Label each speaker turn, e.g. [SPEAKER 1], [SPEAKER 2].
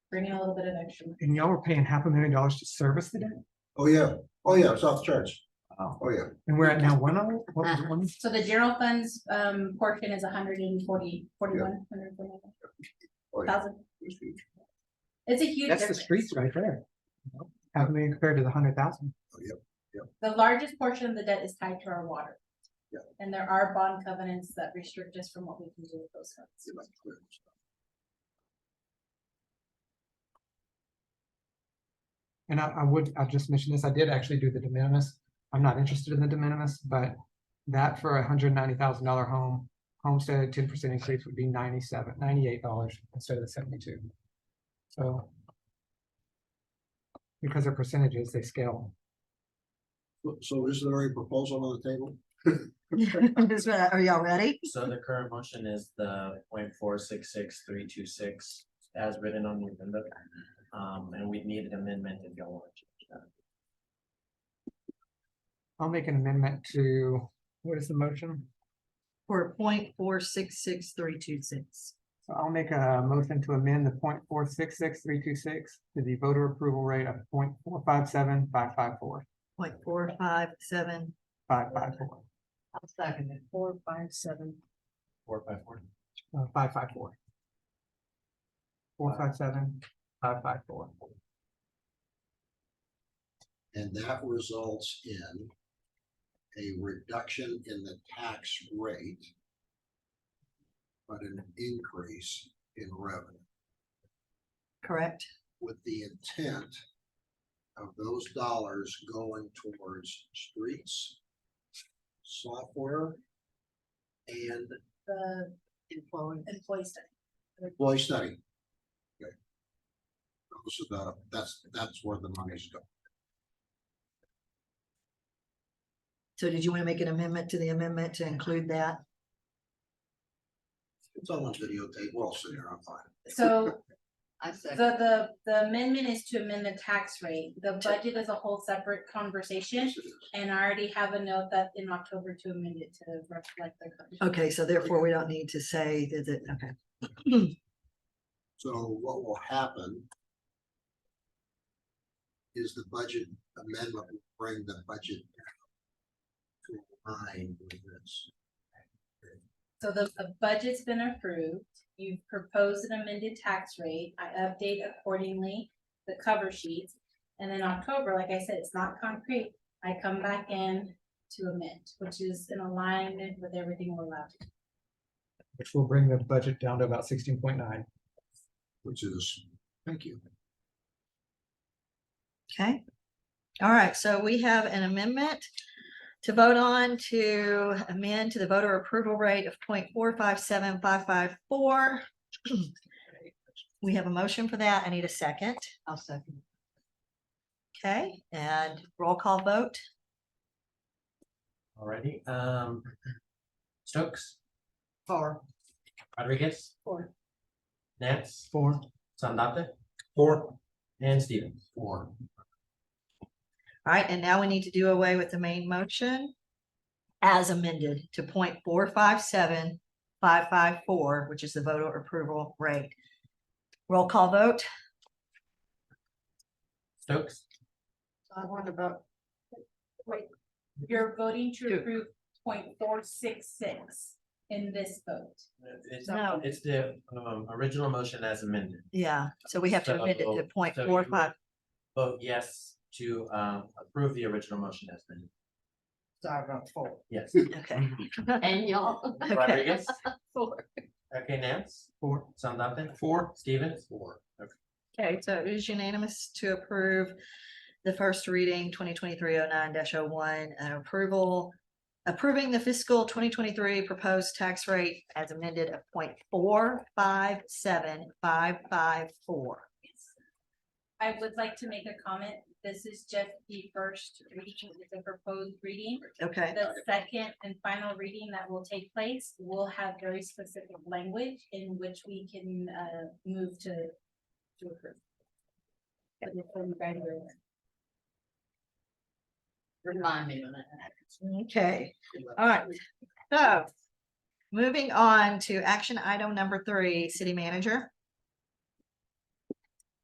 [SPEAKER 1] bringing a little bit of extra. money.
[SPEAKER 2] and y'all were paying half a million dollars to service the debt?
[SPEAKER 3] Oh, yeah. Oh, yeah, South Church.
[SPEAKER 2] Oh.
[SPEAKER 3] Oh, yeah.
[SPEAKER 2] And we're at now one oh, what was
[SPEAKER 1] Uh-huh.
[SPEAKER 2] it, one?
[SPEAKER 1] So the general funds um portion is a hundred and forty, forty-one, hundred and forty-one
[SPEAKER 3] Oh, yeah.
[SPEAKER 1] thousand.
[SPEAKER 3] It's huge.
[SPEAKER 1] It's a huge
[SPEAKER 2] That's the
[SPEAKER 1] difference.
[SPEAKER 2] streets right there. Half a million compared to the hundred thousand.
[SPEAKER 1] The largest portion of the debt is tied to our water.
[SPEAKER 3] Yeah.
[SPEAKER 1] And there are bond covenants that restrict us from what we can do with those funds.
[SPEAKER 3] It's like clear.
[SPEAKER 2] And I, I would, I'll just mention this, I did actually do the de minimis. I'm not interested in the de minimis, but that for a hundred ninety thousand dollar home, homestead, ten percent increase would be ninety-seven, ninety-eight dollars instead of the seventy-two. So because they're percentages, they scale.
[SPEAKER 3] So- So this is already proposal on the table?
[SPEAKER 4] Just, uh, Are y'all ready?
[SPEAKER 5] So the current motion is the point four six six three two six as written on the agenda. Um, and we need an amendment if y'all want to change that.
[SPEAKER 2] I'll make an amendment to, what is the motion?
[SPEAKER 4] For point four six six three two six.
[SPEAKER 2] So I'll make a motion to amend the point four six six three two six to the voter approval rate of point four five seven five five four,
[SPEAKER 4] Point four five seven.
[SPEAKER 2] five five four,
[SPEAKER 4] I'll second it. Four five seven.
[SPEAKER 5] Four by four.
[SPEAKER 2] uh, five five four. Four five seven, five five four.
[SPEAKER 3] And that results in a reduction in the tax rate, but an increase in revenue
[SPEAKER 4] Correct.
[SPEAKER 3] with the intent of those dollars going towards streets, software, and
[SPEAKER 1] The
[SPEAKER 4] Employee.
[SPEAKER 1] employee study.
[SPEAKER 3] employee study. Okay. Those are the, that's, that's where the money's going.
[SPEAKER 4] So did you want to make an amendment to the amendment to include that?
[SPEAKER 3] It's all on videotape. We're all sitting here. I'm fine.
[SPEAKER 1] So
[SPEAKER 4] I
[SPEAKER 1] The,
[SPEAKER 4] second.
[SPEAKER 1] the, the amendment is to amend the tax rate. The budget is a whole separate conversation.
[SPEAKER 3] Yes, it is.
[SPEAKER 1] And I already have a note that in October to amend it to reflect the.
[SPEAKER 4] Okay, so therefore we don't need to say that, it- okay.
[SPEAKER 3] So what will happen is the budget amendment will bring the budget to line with this.
[SPEAKER 1] So the, the budget's been approved. You've proposed an amended tax rate. I update accordingly the cover sheets. And then October, like I said, it's not concrete. I come back in to amend, which is in alignment with everything we're allowed. to do.
[SPEAKER 2] Which will bring the budget down to about sixteen point nine.
[SPEAKER 3] Which is, thank you.
[SPEAKER 4] Okay. All right, so we have an amendment to vote on to amend to the voter approval rate of 0.457554. We have a motion for that. I need a second. I'll second. Okay, and roll call vote.
[SPEAKER 5] Alrighty, um. Stokes,
[SPEAKER 4] Four.
[SPEAKER 5] Rodriguez,
[SPEAKER 1] Or
[SPEAKER 5] Nance,
[SPEAKER 2] Four.
[SPEAKER 5] Sandate. Four. And Stevens.
[SPEAKER 3] Or
[SPEAKER 4] All right, and now we need to do away with the main motion as amended to 0.457554, which is the voter approval rate. Roll call vote.
[SPEAKER 5] Stokes,
[SPEAKER 4] I want to vote.
[SPEAKER 1] you're voting to
[SPEAKER 4] Two.
[SPEAKER 1] approve point four six six in this vote.
[SPEAKER 5] it's,
[SPEAKER 4] No.
[SPEAKER 5] it's the, um, original motion as amended.
[SPEAKER 4] Yeah, so we have to amend it to
[SPEAKER 5] So-
[SPEAKER 4] point
[SPEAKER 5] so
[SPEAKER 4] four
[SPEAKER 5] you-
[SPEAKER 4] five,
[SPEAKER 5] Vote yes to, um, approve the original motion as amended.
[SPEAKER 6] Sorry about four.
[SPEAKER 5] Yes.
[SPEAKER 4] okay.
[SPEAKER 5] Mm-hmm.
[SPEAKER 6] And y'all.
[SPEAKER 4] Okay,
[SPEAKER 5] Rodriguez,
[SPEAKER 6] Four.
[SPEAKER 5] okay, Nance,
[SPEAKER 2] Four.
[SPEAKER 5] Sandate,
[SPEAKER 2] Four.
[SPEAKER 5] Stevens.
[SPEAKER 3] Four.
[SPEAKER 4] okay, so it is unanimous to approve the first reading twenty twenty-three oh nine dash oh one, and approval. Approving the fiscal twenty twenty-three proposed tax rate as amended of point four five seven five five four.
[SPEAKER 1] I would like to make a comment. This is just the first reading, the proposed reading.
[SPEAKER 4] Okay,
[SPEAKER 1] The second and final reading that will take place will have very specific language in which we can uh move to to approve. But if I'm right, we're-
[SPEAKER 6] Remind me when that happens.
[SPEAKER 4] okay, all right, so. Moving on to action item number three, city manager.